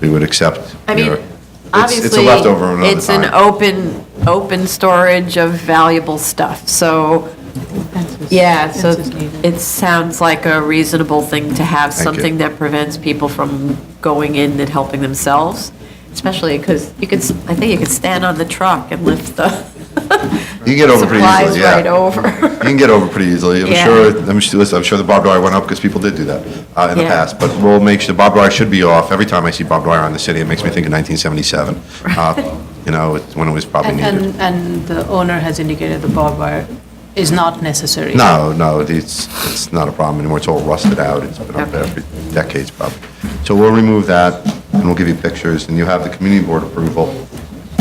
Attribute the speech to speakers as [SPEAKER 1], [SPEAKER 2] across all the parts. [SPEAKER 1] we would accept.
[SPEAKER 2] I mean,
[SPEAKER 1] your- it's-
[SPEAKER 2] obviously.
[SPEAKER 1] It's a leftover another
[SPEAKER 2] It's an
[SPEAKER 1] time.
[SPEAKER 2] open, open storage of valuable stuff, so, yeah, so it sounds like a reasonable thing to have,
[SPEAKER 1] Thank you.
[SPEAKER 2] something that prevents people from going in and helping themselves, especially because you could, s- I think you could stand on the truck and lift the
[SPEAKER 1] You can get over pretty
[SPEAKER 2] supplies
[SPEAKER 1] easily, yeah.
[SPEAKER 2] right
[SPEAKER 1] You
[SPEAKER 2] over.
[SPEAKER 1] can get over pretty easily. I'm
[SPEAKER 2] Yeah.
[SPEAKER 1] sure, I'm sure, listen, I'm sure the barbed wire went up because people did do that uh, in the
[SPEAKER 2] Yeah.
[SPEAKER 1] past. But we'll make sure, the barbed wire should be off. Every time I see barbed wire on the city, it makes me think of 1977. Uh, You know, it's when it was probably
[SPEAKER 3] And,
[SPEAKER 1] needed.
[SPEAKER 3] and- and the owner has indicated the barbed wire is not necessary.
[SPEAKER 1] No, no, it's, it's not a problem anymore. It's all rusted out. It's been up there
[SPEAKER 2] Okay.
[SPEAKER 1] for decades probably. So we'll remove that and we'll give you pictures and you have the community board approval.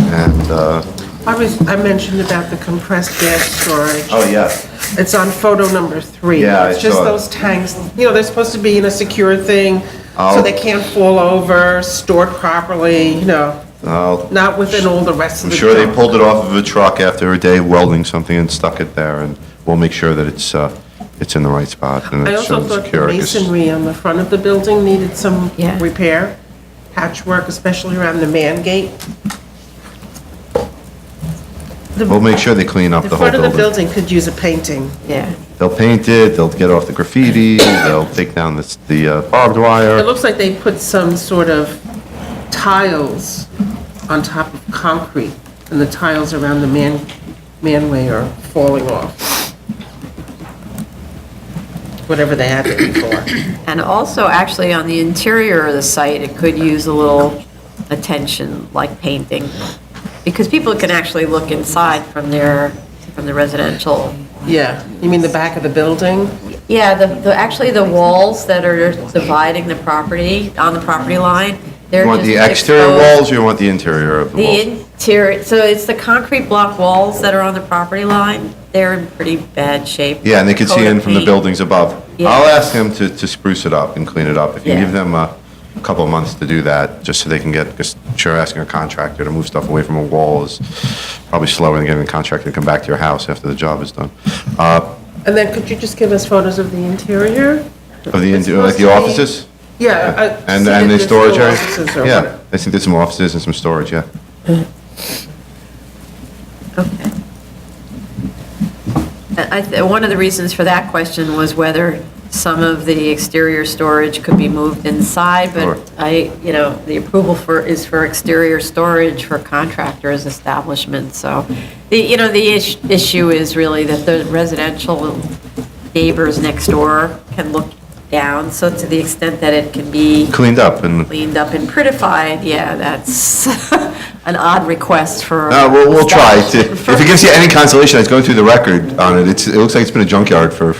[SPEAKER 1] And, uh,
[SPEAKER 4] I was, I mentioned about the compressed gas storage.
[SPEAKER 1] oh, yeah,
[SPEAKER 4] It's on photo number three.
[SPEAKER 1] Yeah, I
[SPEAKER 4] It's just
[SPEAKER 1] saw it.
[SPEAKER 4] those tanks, you know, they're supposed to be in a secure thing, so
[SPEAKER 1] I'll-
[SPEAKER 4] they can't fall over, stored properly, you know,
[SPEAKER 1] I'll-
[SPEAKER 4] not within all the rest
[SPEAKER 1] I'm
[SPEAKER 4] of the
[SPEAKER 1] sure they
[SPEAKER 4] junk.
[SPEAKER 1] pulled it off of a truck after a day welding something and stuck it there and we'll make sure that it's, uh, it's in the right spot and
[SPEAKER 4] I
[SPEAKER 1] it's
[SPEAKER 4] also
[SPEAKER 1] shown
[SPEAKER 4] thought the
[SPEAKER 1] secure. 'cause-
[SPEAKER 4] masonry on the front of the building needed some
[SPEAKER 2] Yeah.
[SPEAKER 4] repair, patchwork, especially around the man gate.
[SPEAKER 1] We'll make sure they clean up
[SPEAKER 4] The
[SPEAKER 1] the whole
[SPEAKER 4] front of the
[SPEAKER 1] building.
[SPEAKER 4] building could use a painting.
[SPEAKER 2] Yeah,
[SPEAKER 1] They'll paint it, they'll get off the graffiti, they'll take down this- the uh, barbed wire.
[SPEAKER 4] It looks like they put some sort of tiles on top of concrete, and the tiles around the man, manway are falling off. Whatever they had it before.
[SPEAKER 2] and also actually on the interior of the site, it could use a little attention, like painting, because people can actually look inside from their, from the residential
[SPEAKER 4] Yeah, you mean the back of the building?
[SPEAKER 2] Yeah, the, the, actually, the walls that are dividing the property, on the property line, they're
[SPEAKER 1] You
[SPEAKER 2] just.
[SPEAKER 1] want the exterior
[SPEAKER 2] exposed-
[SPEAKER 1] walls or you want the interior of the
[SPEAKER 2] The
[SPEAKER 1] walls?
[SPEAKER 2] interior, so it's the concrete block walls that are on the property line, they're in pretty bad shape.
[SPEAKER 1] Yeah, and they can see
[SPEAKER 2] Coat of
[SPEAKER 1] in from the
[SPEAKER 2] paint.
[SPEAKER 1] buildings above.
[SPEAKER 2] Yeah.
[SPEAKER 1] I'll ask them to, to spruce it up and clean it up. If you
[SPEAKER 2] Yeah.
[SPEAKER 1] give them a couple of months to do that, just so they can get, because sure, asking a contractor to move stuff away from a wall is probably slower than getting a contractor to come back to your house after the job is done. Uh,
[SPEAKER 4] And then could you just give us photos of the interior?
[SPEAKER 1] Of the,
[SPEAKER 4] It's
[SPEAKER 1] inter- like the
[SPEAKER 4] supposed to be-
[SPEAKER 1] offices?
[SPEAKER 4] Yeah. I-
[SPEAKER 1] And,
[SPEAKER 4] see
[SPEAKER 1] and
[SPEAKER 4] if
[SPEAKER 1] the
[SPEAKER 4] there's still
[SPEAKER 1] storage area?
[SPEAKER 4] offices or
[SPEAKER 1] Yeah,
[SPEAKER 4] what-
[SPEAKER 1] I think there's some offices and some storage, yeah.
[SPEAKER 2] Okay. And I, th- one of the reasons for that question was whether some of the exterior storage could be moved inside,
[SPEAKER 1] Sure.
[SPEAKER 2] but I, you know, the approval for, is for exterior storage for contractors' establishments, so, the, you know, the ish- issue is really that the residential neighbors next door can look down, so to the extent that it can be
[SPEAKER 1] Cleaned up and
[SPEAKER 2] cleaned up and prettified, yeah, that's an odd request for.
[SPEAKER 1] Uh, we'll, we'll try to, if
[SPEAKER 2] establishment.
[SPEAKER 1] it gives you any consolation, I was going through the record on it, it's, it looks like it's been a junkyard for,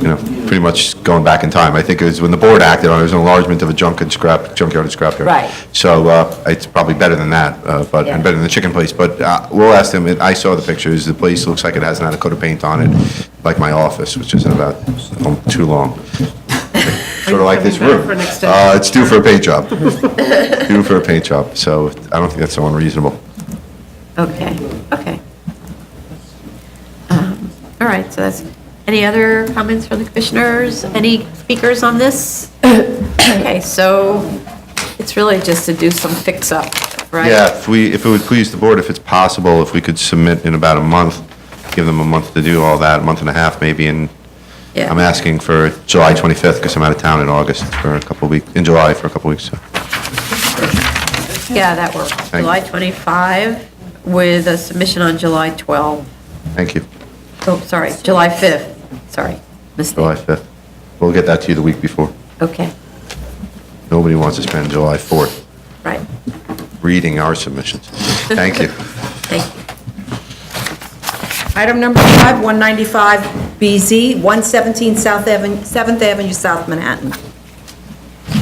[SPEAKER 1] you know, pretty much going back in time. I think it was when the board acted on it, it was an enlargement of a junk and scrap, junkyard and scrapyard.
[SPEAKER 2] Right.
[SPEAKER 1] So, uh, it's probably better than that, uh, but, and
[SPEAKER 2] Yeah.
[SPEAKER 1] better than the chicken place, but, uh, we'll ask them, It- I saw the pictures, the place looks like it hasn't had a coat of paint on it, like my office, which isn't about, um, too long. Sort of like this
[SPEAKER 4] coming back
[SPEAKER 1] room.
[SPEAKER 4] for an
[SPEAKER 1] Uh,
[SPEAKER 4] extension?
[SPEAKER 1] it's due for a paint job, due for a paint job, so I don't think that's so unreasonable.
[SPEAKER 2] Okay, okay. Um, All right, so that's, any other comments from the commissioners? Any speakers on this? Okay, so it's really just to do some fix-up, right?
[SPEAKER 1] Yeah, if we, if it would please the board, if it's possible, if we could submit in about a month, give them a month to do all that, a month and a half maybe, and
[SPEAKER 2] Yeah.
[SPEAKER 1] I'm asking for July 25th, because I'm out of town in August for a couple of weeks, in July for a couple of weeks, so.
[SPEAKER 2] Yeah, that works.
[SPEAKER 1] you.
[SPEAKER 2] July 25 with a submission on July 12.
[SPEAKER 1] Thank you,
[SPEAKER 2] Oh, sorry, July 5th, sorry,
[SPEAKER 1] July
[SPEAKER 2] mistake.
[SPEAKER 1] 5th. We'll get that to you the week before.
[SPEAKER 2] Okay,
[SPEAKER 1] Nobody wants to spend July 4th
[SPEAKER 2] right,
[SPEAKER 1] reading our submissions. Thank you.
[SPEAKER 2] thank you.
[SPEAKER 5] Item number five, 195BZ, 117 South Avenue, 7th Avenue, South Manhattan.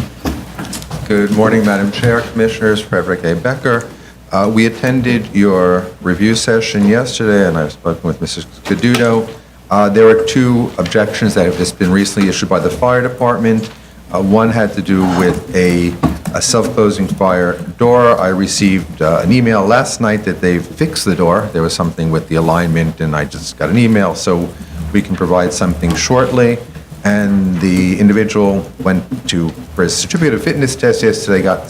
[SPEAKER 6] Good morning, Madam Chair, Commissioners, Frederick A. Becker. Uh, We attended your review session yesterday, and I've spoken with Mrs. Caduto. Uh, There were two objections that have just been recently issued by the fire department. Uh, One had to do with a a self-closing fire door. I received uh, an email last night that they fixed the door. There was something with the alignment, and I just got an email, so we can provide something shortly and the individual went to for his certificate of fitness test yesterday, got